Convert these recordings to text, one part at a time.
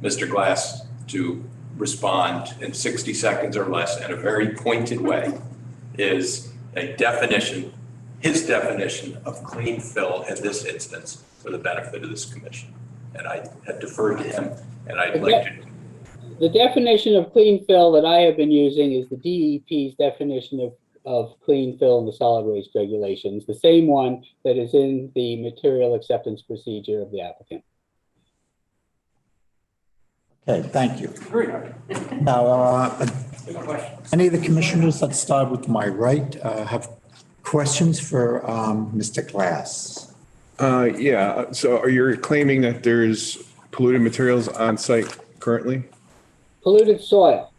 Mr. Glass to respond in 60 seconds or less in a very pointed way is a definition, his definition of clean fill in this instance for the benefit of this commission. And I have deferred to him and I'd like to, The definition of clean fill that I have been using is the DEP's definition of, of clean fill in the solid waste regulations, the same one that is in the material acceptance procedure of the applicant. Okay, thank you. Now, uh, any of the commissioners, let's start with my right, uh, have questions for um, Mr. Glass. Uh, yeah, so are you claiming that there's polluted materials on site currently? Polluted soil.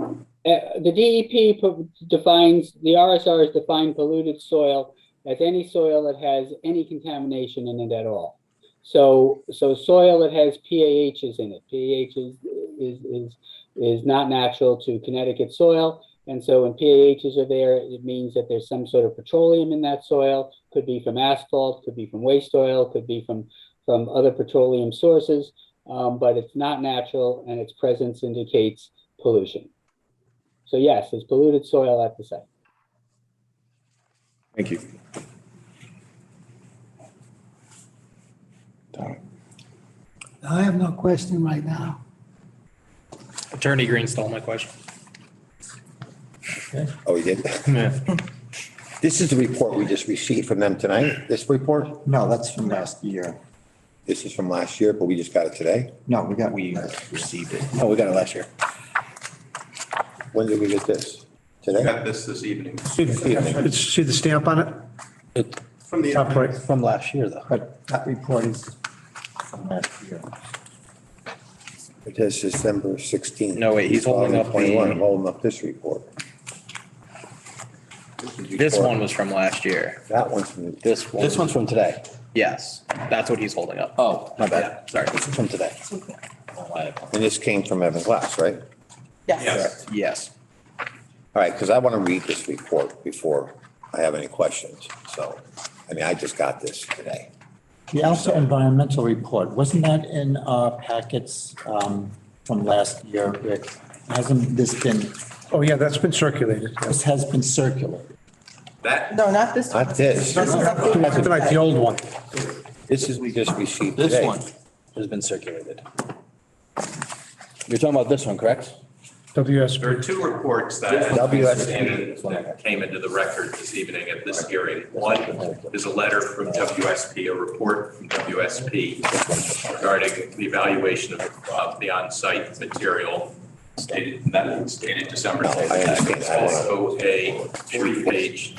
Uh, the DEP pro- defines, the RSRs define polluted soil as any soil that has any contamination in it at all. So, so soil that has PAHs in it, PAH is, is, is, is not natural to Connecticut soil. And so when PAHs are there, it means that there's some sort of petroleum in that soil, could be from asphalt, could be from waste oil, could be from, from other petroleum sources. Um, but it's not natural and its presence indicates pollution. So yes, there's polluted soil at the site. Thank you. I have no question right now. Attorney Green stole my question. Oh, he did? This is the report we just received from them tonight, this report? No, that's from last year. This is from last year, but we just got it today? No, we got, we, Received it. Oh, we got it last year. When did we get this? I Today? got this this evening. See the see the stamp on it? From the, Top right, from last year, though. but that report is from last year. It says December 16th. No, wait, he's holding up the- 2021. I'm holding up this report. This one was from last year. That one's from. This one. one's from today. Yes, that's what he's holding up. Oh, my Yeah, Sorry. From today. And this came from Evan Glass, right? yes, Yes. All right, because I want to read this report before I have any questions. So, I mean, I just got this today. The Alpha Environmental Report, wasn't that in our packets um, from last year, Rick? Hasn't this been, Oh, yeah, that's been circulated. yeah. this has been circulated? that, No, not this one. Not this. Not Like the old one. This is, we just received today. This one has been circulated. You're talking about this one, correct? there are WSB. two reports that I understand that came into the record this evening at this hearing. One is a letter from WSP, a report from WSP regarding the evaluation of uh, the on-site material stated, and that was dated December No, I 10th. understand. It's I wanna- also a three-page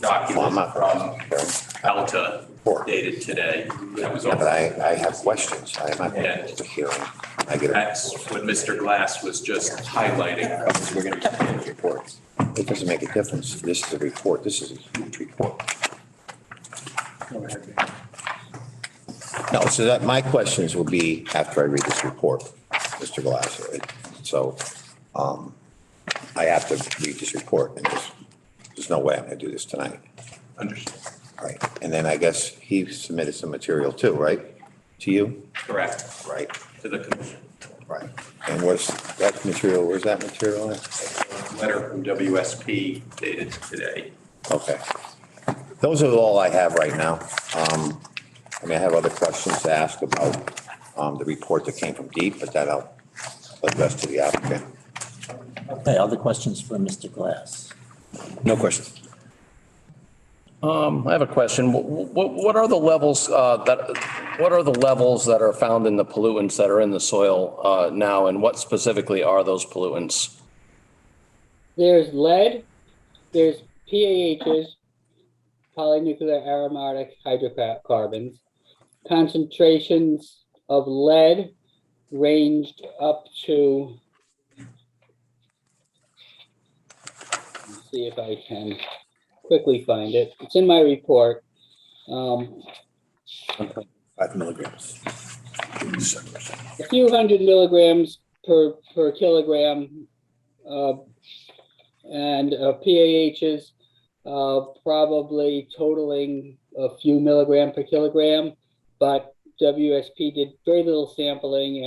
document from Alta Four. dated today. That was Yeah, all. but I, I have questions. I'm not going Yeah. to the hearing. I get a That's what Mr. Glass was just highlighting. We're going to get the reports. It doesn't make a difference. This is a report. This is a huge report. No, so that, my questions will be after I read this report, Mr. Glass. So um, I have to read this report and there's, there's no way I'm going to do this tonight. Understood. All right. And then I guess he submitted some material too, right? To you? Correct, Right. to the commission. Right. And where's that material, where's that material at? letter from WSP dated today. Okay. Those are all I have right now. Um, I mean, I have other questions to ask about, um, the report that came from Deep, but that I'll address to the applicant. Okay, other questions for Mr. Glass? No question. Um, I have a question. What, what are the levels, uh, that, what are the levels that are found in the pollutants that are in the soil, uh, now? And what specifically are those pollutants? There's lead, there's PAHs, polynuclear aromatic hydrocarbons. Concentrations of lead ranged up to. Let's See if I can quickly find it. It's in my report. Um, Five milligrams. a few hundred milligrams per, per kilogram. uh, And uh, PAHs, uh, probably totaling a few milligram per kilogram. But WSP did very little sampling